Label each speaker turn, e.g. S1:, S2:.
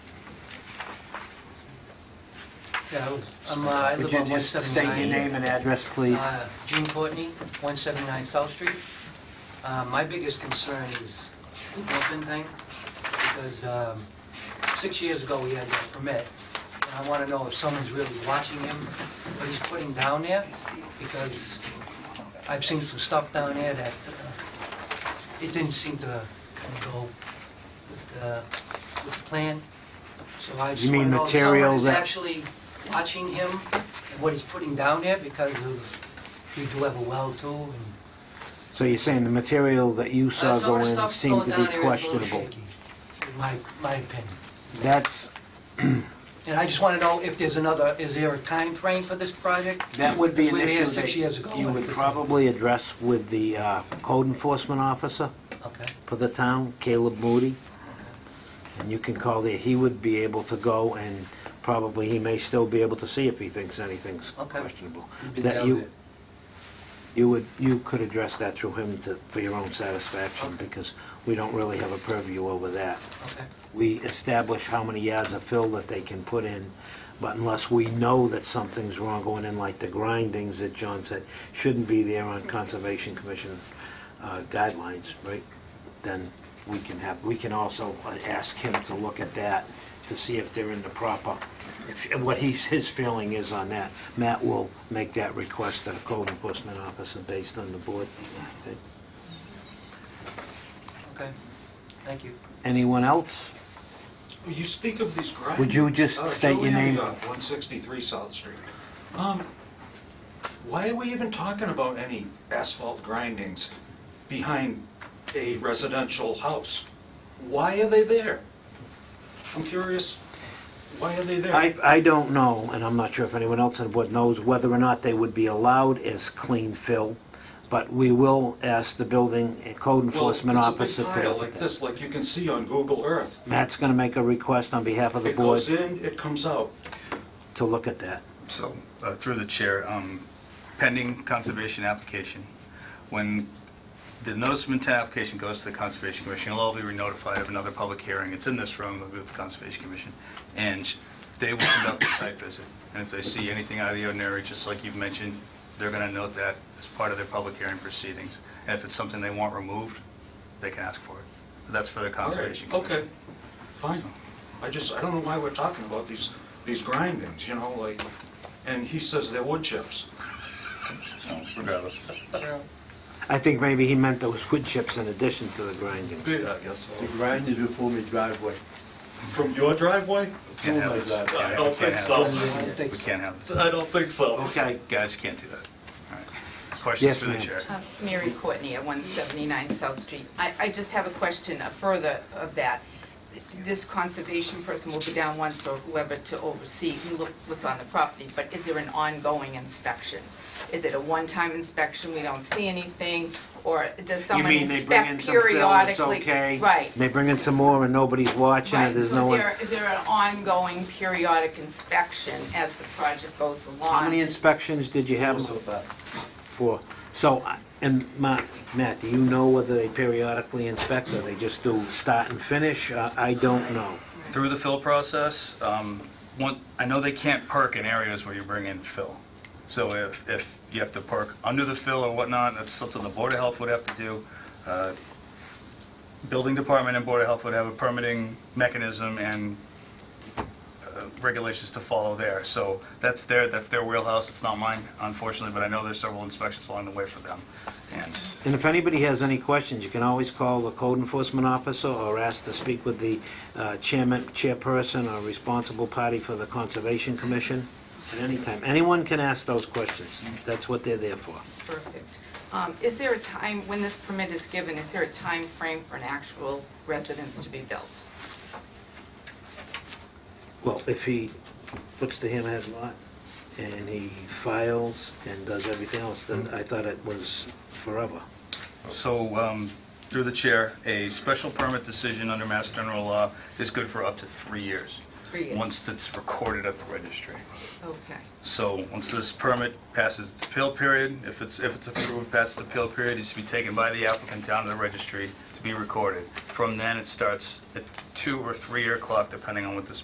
S1: Yeah, I was- I'm, uh, I
S2: Could
S1: live
S2: you
S1: on
S2: just state your
S1: 179.
S2: name and address, please?
S1: Uh, June Courtney, 179 South Street. Uh, My biggest concern is the dumping thing, because um, six years ago, we had that permit, and I want to know if someone's really watching him, what he's putting down there, because I've seen some stuff down there that uh, it didn't seem to go with uh, with the plan, so I just
S2: You
S1: want
S2: mean
S1: to know if someone
S2: material
S1: is
S2: that-
S1: actually watching him, and what he's putting down there, because of you do have a well too, and
S2: So you're saying the material that you
S1: Uh,
S2: saw
S1: some of
S2: go
S1: the
S2: in
S1: stuff's
S2: seemed
S1: going
S2: to
S1: down
S2: be
S1: there is a little
S2: questionable?
S1: shaky, in my, my opinion.
S2: That's,
S1: And I just want to know if there's another, is there a time frame for this project?
S2: that would be an
S1: We were
S2: issue
S1: here six years ago.
S2: that you
S1: and
S2: would
S1: it's-
S2: probably address with the uh, code enforcement officer
S1: Okay,
S2: for the town, Caleb Moody. And you can call there, he would be able to go and probably he may still be able to see if he thinks anything's
S1: Okay.
S2: questionable.
S3: been
S2: That
S3: down
S2: you-
S3: there.
S2: You would, you could address that through him to, for your own satisfaction
S1: Okay.
S2: because we don't really have a purview over that.
S1: okay,
S2: we establish how many yards of fill that they can put in, but unless we know that something's wrong going in, like the grindings that John said, shouldn't be there on Conservation Commission uh, guidelines, right? Then we can have, we can also uh, ask him to look at that, to see if they're in the proper, if- what he's, his feeling is on that. Matt will make that request to the code enforcement officer based on the board.
S1: okay. Thank you.
S2: Anyone else?
S3: You speak of these grindings.
S2: Would you just
S3: Uh,
S2: state your
S3: Joey
S2: name?
S3: Avion, 163 South Street. Um, Why are we even talking about any asphalt grindings behind a residential house? Why are they there? I'm curious, why are they there?
S2: I, I don't know, and I'm not sure if anyone else on the board knows, whether or not they would be allowed as clean fill, but we will ask the building and code
S3: Well,
S2: enforcement officer
S3: It's a big pile like
S2: to...
S3: this, like you can see on Google Earth.
S2: Matt's gonna make a request on behalf of the
S3: It goes
S2: board
S3: in, it comes out.
S2: to look at that.
S4: So, uh, through the chair, um, pending conservation application, when the notice of intent application goes to the Conservation Commission, it'll all be notified of another public hearing. It's in this room, it'll be with the Conservation Commission, and they will conduct a site visit. And if they see anything out of the ordinary, just like you've mentioned, they're going to note that as part of their public hearing proceedings. And if it's something they want removed, they can ask for it. That's for the
S3: All right,
S4: Conservation Commission.
S3: Okay, fine. I just, I don't know why we're talking about these, these grindings, you know, like, and he says they're wood chips.
S4: So, regardless.
S2: I think maybe he meant those wood chips in addition to the grinding.
S3: Good, I guess so.
S5: The grind is before my driveway.
S3: From your driveway?
S4: Can't have
S5: Oh my
S4: this.
S5: God.
S4: Yeah,
S3: I don't
S4: we can't
S3: think
S4: have
S3: so.
S4: this.
S1: I think
S4: We
S1: so.
S4: can't have this.
S3: I don't think so.
S2: Okay,
S4: Guys, can't do that. All right.
S2: Yes,
S4: Questions for the
S2: ma'am.
S4: chair?
S6: Uh, Mary Courtney at 179 South Street. I, I just have a question uh, further of that. This conservation person will be down once or whoever to oversee and look what's on the property, but is there an ongoing inspection? Is it a one-time inspection, we don't see anything, or does
S2: You
S6: someone
S2: mean they bring in
S6: inspect
S2: some fill, it's
S6: periodically?
S2: okay?
S6: Right,
S2: They bring in some more and nobody's watching it,
S6: right.
S2: there's no
S6: So is
S2: one...
S6: there, is there an ongoing periodic inspection as the project goes along?
S2: How many inspections did you have?
S5: So far.
S2: for, so, I- and Ma- Matt, do you know whether they periodically inspect or they just do start and finish? Uh, I don't know.
S4: Through the fill process, um, one, I know they can't park in areas where you bring in fill. So if, if you have to park under the fill or whatnot, that's something the Board of Health would have to do. Uh, Building Department and Board of Health would have a permitting mechanism and uh, regulations to follow there. So that's their, that's their wheelhouse, it's not mine, unfortunately, but I know there's several inspections along the way for them. And
S2: And if anybody has any questions, you can always call the code enforcement officer or ask to speak with the uh, chairman, chairperson or responsible party for the Conservation Commission at any time. Anyone can ask those questions. That's what they're there for.
S6: Perfect. Um, Is there a time, when this permit is given, is there a time frame for an actual residence to be built?
S2: Well, if he puts the hammerhead lot and he files and does everything else, then I thought it was forever.
S4: So, um, through the chair, a special permit decision under Mass General Law is good for up to three years.
S6: Three years.
S4: Once it's recorded at the registry.
S6: Okay.
S4: So, once this permit passes its appeal period, if it's, if it's approved, passes the appeal period, it should be taken by the applicant down to the registry to be recorded. From then, it starts a two or three-year clock, depending on what this